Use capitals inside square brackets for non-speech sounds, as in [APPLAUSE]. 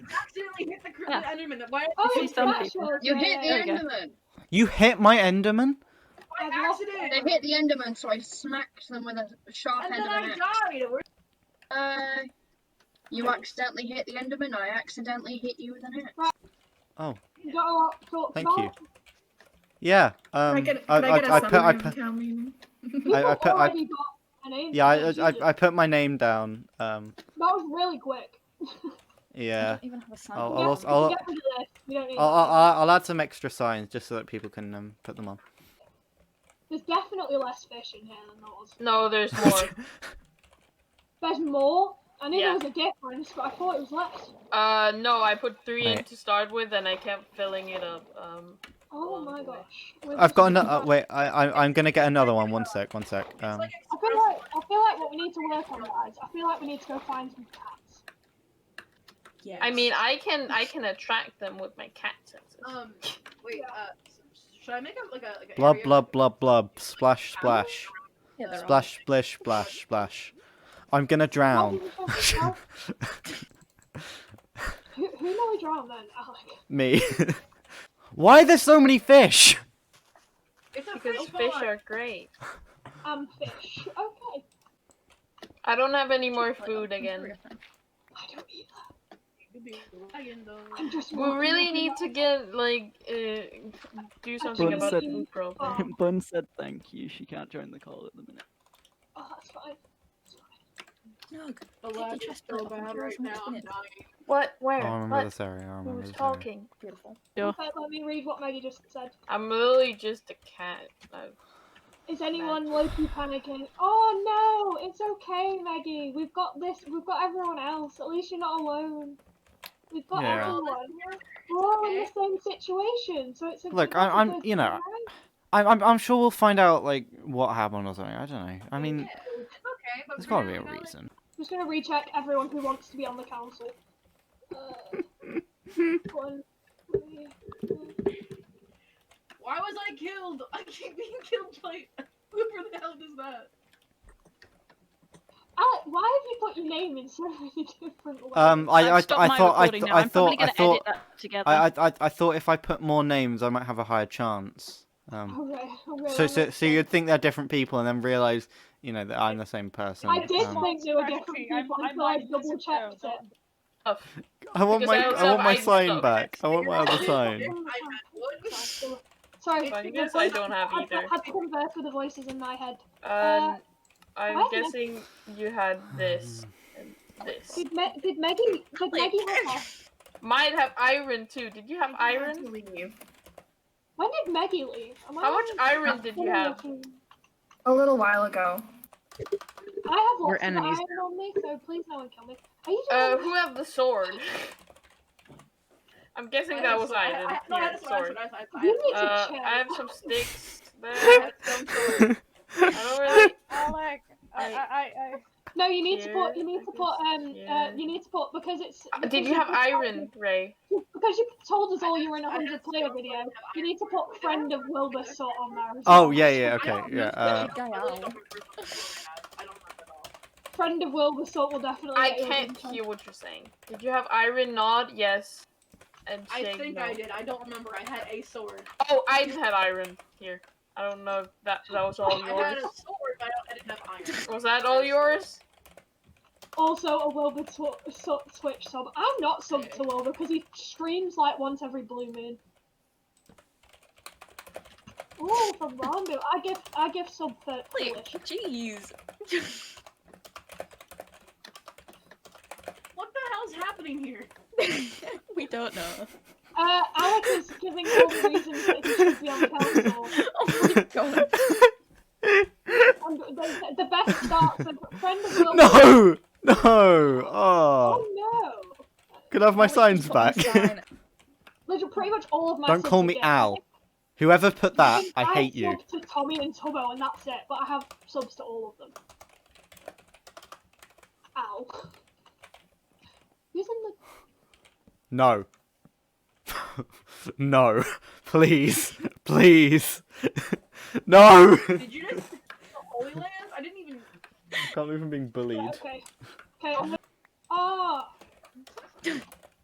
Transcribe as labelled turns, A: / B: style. A: Yeah. Enderman. Why?
B: Oh,
A: See some
B: gosh,
A: people.
B: well,
C: You hit the
B: yeah.
A: There we go.
C: Enderman.
D: You hit my Enderman?
A: By
B: I've lost
A: accident.
C: They hit the Enderman, so I smacked them with a sharp
A: And
C: end
A: then
C: of an
A: I
C: axe.
A: died. Where-
C: Uh, you accidentally hit the Enderman. I accidentally hit you with an axe.
B: You got a lot to talk
D: Thank
B: about. [LAUGHS]
D: you. Yeah.
E: Can
D: Um,
E: I get,
D: I,
E: can I, get
D: I,
E: a
D: I put, I
E: summary
D: put, um,
E: of town meeting?
B: People
D: I- I put- I-
B: already got an aim.
D: yeah, I,
B: You
D: I,
B: just-
D: I put my name down. Um,
B: That was really quick.
A: I
D: yeah. Oh,
A: don't even have a sign.
D: I'll-
B: Yeah,
D: I'll-
B: we
D: I'll-
B: get rid of this. We don't need
D: I'll,
B: that.
D: I'll, I'll- I'll add some extra signs just so that people can um, put them on.
B: There's definitely less fish in here than there was.
A: No, there's more.
B: There's more. I knew
A: Yeah.
B: there was a difference, but I thought it was less.
A: uh, no, I put three in
D: Right.
A: to start with, and I kept filling it up. Um,
B: Oh
A: Oh,
B: my
A: boy.
B: gosh.
D: I've got
B: another.
D: another. Uh, wait, I, I, I'm gonna get another one. One sec. One sec. Um,
B: I feel like I feel like what we need to work on, guys. I feel like we need to go find some cats.
E: Yes.
A: I mean, I can I can attract them with my cat senses.
F: Um, wait. Uh, should I make up like a like a
D: blub
F: area?
D: blub blub blub. Splash splash.
A: yeah, they're all-
D: Splash splish splash splash. I'm gonna
B: Why
D: drown.
B: did we find some cats?
D: [LAUGHS]
B: who, who nearly drowned then, Alec?
D: Me. [LAUGHS] Why are there so many fish?
F: It's a
A: Because
F: fish,
A: fish
F: pond.
A: are great.
B: Um, fish. Okay.
A: I don't have any more food again.
B: I don't eat that.
F: Could be a lion, though.
B: I'm just.
A: We
B: walking
A: really
B: up and
A: need to
B: down.
A: get like uh, do something
G: Bun
A: about
G: said-
A: food problem. [LAUGHS]
B: Oh,
G: [LAUGHS] Bun said thank you. She can't join the call at the minute.
B: oh, that's fine.
F: The lad is so bad right now. I'm dying.
A: What?
D: Oh,
A: Where?
D: I remember
A: what?
D: this area. I remember
A: Who's
D: this area.
A: talking?
B: In fact, Let me read what Maggie just said.
A: I'm literally just a cat. I-
B: Is anyone low-key panicking? Oh no, it's okay, Maggie. We've got this. We've got everyone else. At least you're not alone. We've got
D: Yeah.
B: everyone. We're all in the same situation, so it's okay.
D: Look,
B: to
D: I- I'm-
B: go
D: you know,
B: through life.
D: I'm, I'm, I'm sure we'll find out like what happened or something. I don't know. I mean,
F: Yeah, it's okay, but
D: there's
F: we're
D: gotta be a
F: not gonna-
D: reason.
B: I'm just gonna recheck everyone who wants to be on the council.
D: [LAUGHS]
B: Uh, one, three,
F: Why was I killed? [LAUGHS] I keep being killed [LAUGHS] by. Whoever the hell does that?
B: Alec, why have you put your name in so many [LAUGHS] different ways?
D: Um, I, I, I
H: Stop my
D: thought, I,
H: recording
D: th-
H: now.
D: I
H: I'm probably
D: thought, I
H: gonna
D: thought,
H: edit that together.
D: I, I, I, I thought if I put more names, I might have a higher chance. Um,
B: Okay, okay,
D: so,
B: Oh, that
D: so,
B: makes
D: so you'd think they're different people, and then realize, you know, that I'm the same person.
B: I did
D: Um,
B: think they were different
H: Actually,
B: people
H: I'm- I'm
B: until I
H: like, this is
B: double checked
H: terrible.
B: it.
A: Oh,
D: I want my,
A: because I
D: I
A: also-
D: want my
A: I
D: sign
A: don't-
D: back. I want my other
F: Yeah.
D: sign.
F: I had [LAUGHS] one.
B: Sorry,
A: Well, you
B: the
A: guys, I
B: voice-
A: don't have
B: I-
A: either.
B: I had to converse with the voices in my head.
A: um, I'm
B: why-
A: guessing you had this
D: Hmm.
A: and this.
B: Did, Me- did Maggie? Did Maggie have hair?
A: Might have iron too. Did you have iron?
B: When did Maggie leave? Am I
A: How much
B: wrong?
A: iron did you have?
E: A little while ago.
B: I have
C: We're
B: lots of
C: enemies
B: iron on me, so please no one kill me. Are you
A: Uh,
B: doing?
A: who have the sword? I'm guessing that was
F: I- I-
A: iron.
F: no, I
A: Yeah,
F: had a
A: sword.
F: sword. I had a sword. I had a
B: you
F: sword.
B: need to
A: Uh,
B: chill.
A: I have
F: [LAUGHS]
A: some sticks. There. I have some sword. I don't really.
E: Alec,
A: I-
E: I, I,
B: No, you need to put. You
A: Here,
B: need to put. Um, uh,
A: here.
B: you need to put because it's.
A: Uh,
B: because
A: Did you have
B: just told-
A: iron, Ray?
B: Because you told us all you were in a
F: I had
B: hundred player
F: sword.
B: video. You need to put friend of Wilbur sort on there. as
D: Oh
B: well.
D: yeah, yeah,
F: I
D: okay,
F: don't
D: yeah.
F: use
D: Uh,
F: that. I really don't remember what I had. I don't remember at all.
B: Friend of Wilbur sort will definitely.
A: I
B: get you a
A: can't
B: good chance.
A: hear what you're saying. Did you have iron? Nod yes. And
F: I
A: shake
F: think
A: no.
F: I did. I don't remember. I had a sword.
A: Oh, I had iron here. I don't know if that that was all
F: I had a
A: yours.
F: sword, but I, don't, I didn't have iron.
A: Was that all yours?
B: Also, a Wilbur tw- su- Twitch sub. I'm not subbed to Wilbur because he streams like once every blue moon. Ooh, from Rondo. I give I give sub for Polish.
H: jeez.
F: What the hell's happening here?
H: we don't know.
B: Uh, Alec is giving all the reasons that he should be on council.
H: Oh my god.
B: And the, the best starts a friend
D: [LAUGHS]
B: of Wilbur.
D: no, no. Oh,
B: Oh no!
D: could I have [LAUGHS] my signs back?
B: Literally, pretty much all of my.
D: [LAUGHS] Don't
B: subs
D: call
B: are
D: me
B: gay.
D: Al. Whoever put that, I
B: have
D: hate you.
B: subs To Tommy and Tubbo, and that's it. But I have subs to all of them. Ow. Who's in the?
D: No. [LAUGHS] no. [LAUGHS] Please. Please. [LAUGHS] no.
F: Did you
D: [LAUGHS]
F: just [LAUGHS] the Holy Land? I didn't even.
D: Can't believe I'm being bullied.
B: Okay. Okay. I'm... Ah.